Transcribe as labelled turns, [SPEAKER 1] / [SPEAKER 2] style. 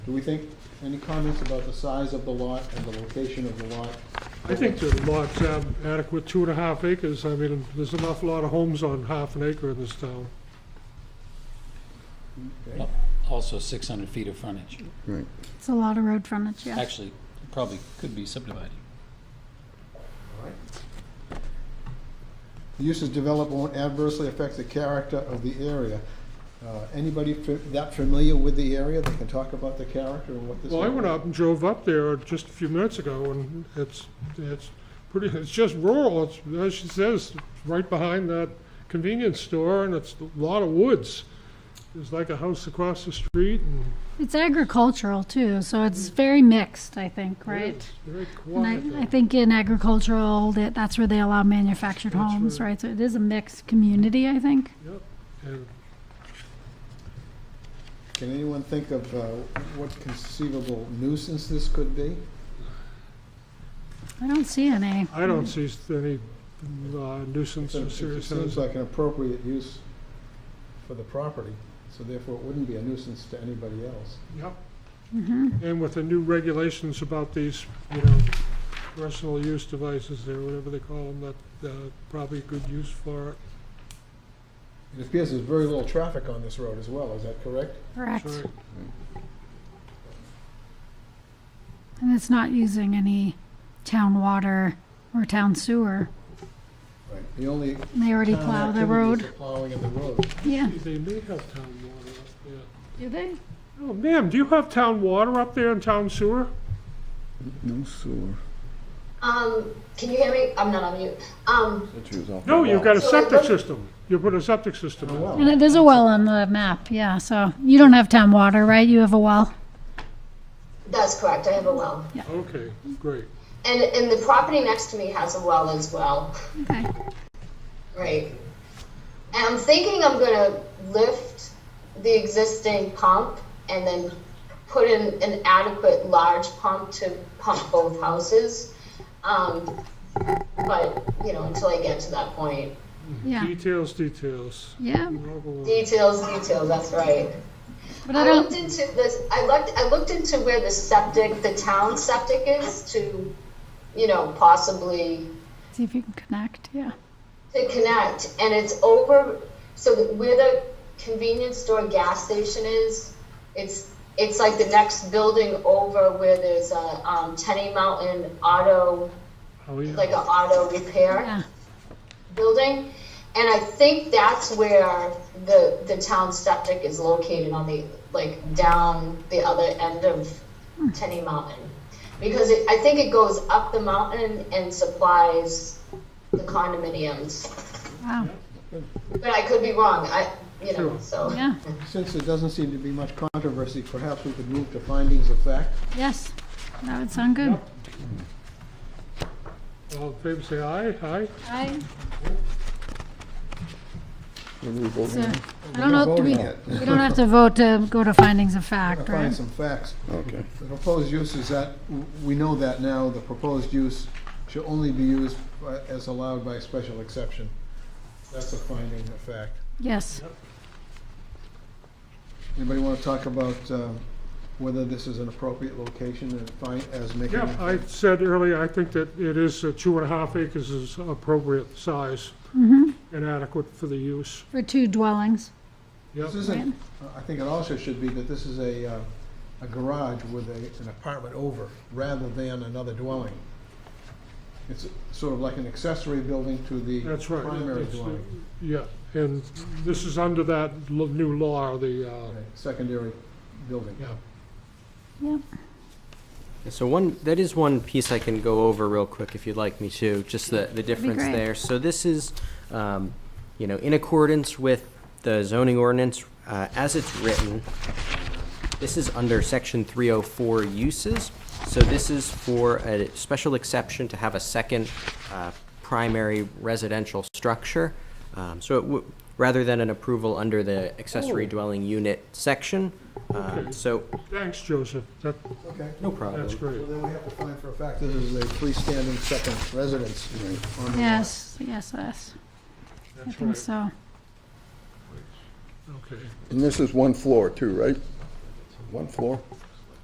[SPEAKER 1] Do we think, any comments about the size of the lot and the location of the lot?
[SPEAKER 2] I think the lot's ab- adequate, two and a half acres. I mean, there's an awful lot of homes on half an acre in this town.
[SPEAKER 1] Okay.
[SPEAKER 3] Also 600 feet of frontage.
[SPEAKER 4] Right.
[SPEAKER 5] It's a lot of road frontage, yeah.
[SPEAKER 3] Actually, probably could be subdivided.
[SPEAKER 1] The uses developed won't adversely affect the character of the area. Uh, Anybody fa- that familiar with the area that can talk about the character and what this?
[SPEAKER 2] Well, I went
[SPEAKER 1] area-
[SPEAKER 2] up and drove up there just a few minutes ago, and it's, it's pretty, it's just rural. It's, as she says, right behind that convenience store, and it's a lot of woods. There's like a house across the street, and
[SPEAKER 5] It's agricultural too, so it's very mixed, I think, right?
[SPEAKER 2] it's very
[SPEAKER 5] And
[SPEAKER 2] quiet.
[SPEAKER 5] I, I
[SPEAKER 2] there.
[SPEAKER 5] think in agricultural, that, that's where they allow manufactured
[SPEAKER 2] That's
[SPEAKER 5] homes,
[SPEAKER 2] right.
[SPEAKER 5] right? So it is a mixed community, I think.
[SPEAKER 2] And
[SPEAKER 1] Can anyone think of uh, what conceivable nuisance this could be?
[SPEAKER 5] I don't see any.
[SPEAKER 2] I don't see any uh, nuisance or
[SPEAKER 1] It
[SPEAKER 2] serious
[SPEAKER 1] seems
[SPEAKER 2] hazard.
[SPEAKER 1] like an appropriate use for the property, so therefore it wouldn't be a nuisance to anybody else.
[SPEAKER 2] Yep.
[SPEAKER 5] Mhm.
[SPEAKER 2] And with the new regulations about these, you know, personal use devices or whatever they call them, that, uh, probably a good use for it.
[SPEAKER 1] It appears there's very little traffic on this road as well, is that correct?
[SPEAKER 5] Correct.
[SPEAKER 2] Sure.
[SPEAKER 5] And it's not using any town water or town sewer.
[SPEAKER 1] Right. The only
[SPEAKER 5] And They already
[SPEAKER 1] town
[SPEAKER 5] plow the
[SPEAKER 1] activity is
[SPEAKER 5] road.
[SPEAKER 1] the plowing of the road.
[SPEAKER 5] Yeah.
[SPEAKER 2] They may have town water up there.
[SPEAKER 5] Do they?
[SPEAKER 2] Oh, ma'am, do you have town water up there and town sewer?
[SPEAKER 4] No sewer.
[SPEAKER 6] Um, can you hear me? I'm not on mute. Um,
[SPEAKER 2] No, you've got a
[SPEAKER 6] So
[SPEAKER 2] septic
[SPEAKER 6] it-
[SPEAKER 2] system. You put a septic system
[SPEAKER 1] A
[SPEAKER 2] in.
[SPEAKER 1] well.
[SPEAKER 5] And it- there's a well on the map, yeah. So you don't have town water, right? You have a well.
[SPEAKER 6] that's correct. I have a well,
[SPEAKER 2] Okay, great.
[SPEAKER 6] and and the property next to me has a well as well,
[SPEAKER 5] Okay.
[SPEAKER 6] right? And I'm thinking I'm gonna lift the existing pump and then put in an adequate large pump to pump both houses. Um, but you know, until I get to that point,
[SPEAKER 5] Yeah.
[SPEAKER 2] Details, details.
[SPEAKER 5] Yeah.
[SPEAKER 6] details, details. That's right.
[SPEAKER 5] But I
[SPEAKER 6] I looked
[SPEAKER 5] don't.
[SPEAKER 6] into this. I looked. I looked into where the septic, the town septic is, to, you know, possibly
[SPEAKER 5] See if you can connect. Yeah.
[SPEAKER 6] to connect, and it's over. So that where the convenience store gas station is, it's it's like the next building over where there's a um, Tenny Mountain Auto,
[SPEAKER 2] Oh, yeah.
[SPEAKER 6] like an auto repair
[SPEAKER 5] Yeah.
[SPEAKER 6] building, and I think that's where the the town septic is located on the like down the other end of Tenny Mountain, because it, I think it goes up the mountain and supplies the condominiums.
[SPEAKER 5] Wow.
[SPEAKER 6] But I could be wrong. I you know
[SPEAKER 2] Sure.
[SPEAKER 6] so
[SPEAKER 5] Yeah.
[SPEAKER 1] Since there doesn't seem to be much controversy, perhaps we could move to findings of fact.
[SPEAKER 5] Yes. That would sound good.
[SPEAKER 2] All in favor, say aye, aye.
[SPEAKER 5] I. So,
[SPEAKER 4] Okay.
[SPEAKER 5] I don't know. Do we?
[SPEAKER 1] Voting it.
[SPEAKER 5] We don't have to vote to go to findings of fact,
[SPEAKER 1] Find
[SPEAKER 5] right?
[SPEAKER 1] some facts. The proposed use is that, we know that now, the proposed use shall only be used by- as allowed by special exception. That's a finding of fact.
[SPEAKER 5] Yes.
[SPEAKER 1] Anybody want to talk about um, whether this is an appropriate location and find, as making?
[SPEAKER 2] Yeah, I said earlier, I think that it is, uh, two and a half acres is appropriate size
[SPEAKER 5] Mhm.
[SPEAKER 2] and adequate for the use.
[SPEAKER 5] For two dwellings.
[SPEAKER 2] Yep.
[SPEAKER 1] This isn't, I think it also should be that this is a, uh, a garage with a, an apartment over, rather than another dwelling. It's sort of like an accessory building to the
[SPEAKER 2] That's right.
[SPEAKER 1] primary
[SPEAKER 2] It's, uh,
[SPEAKER 1] dwelling,
[SPEAKER 2] Yeah, and this is under that l- new law, the, uh,
[SPEAKER 1] right, secondary building.
[SPEAKER 2] yeah.
[SPEAKER 5] Yeah.
[SPEAKER 7] So one, that is one piece I can go over real quick if you'd like me to, just the, the difference
[SPEAKER 5] great.
[SPEAKER 7] there. So this is, um, you know, in accordance with the zoning ordinance, uh, as it's written, this is under section three oh four uses. So this is for a special exception to have a second, uh, primary residential structure. Um, so it w- rather than an approval under the accessory
[SPEAKER 2] Oh.
[SPEAKER 7] dwelling unit section, uh,
[SPEAKER 2] Okay.
[SPEAKER 7] so,
[SPEAKER 2] Thanks, Joseph, that,
[SPEAKER 1] Okay,
[SPEAKER 7] no problem.
[SPEAKER 2] that's
[SPEAKER 1] well
[SPEAKER 2] great.
[SPEAKER 1] then we have to find for a fact this is a freestanding second residence on the lot.
[SPEAKER 5] Yes. Yes. Yes. I
[SPEAKER 2] That's
[SPEAKER 5] think
[SPEAKER 2] right.
[SPEAKER 5] so.
[SPEAKER 2] Okay,
[SPEAKER 4] And this is one floor too, right? One floor?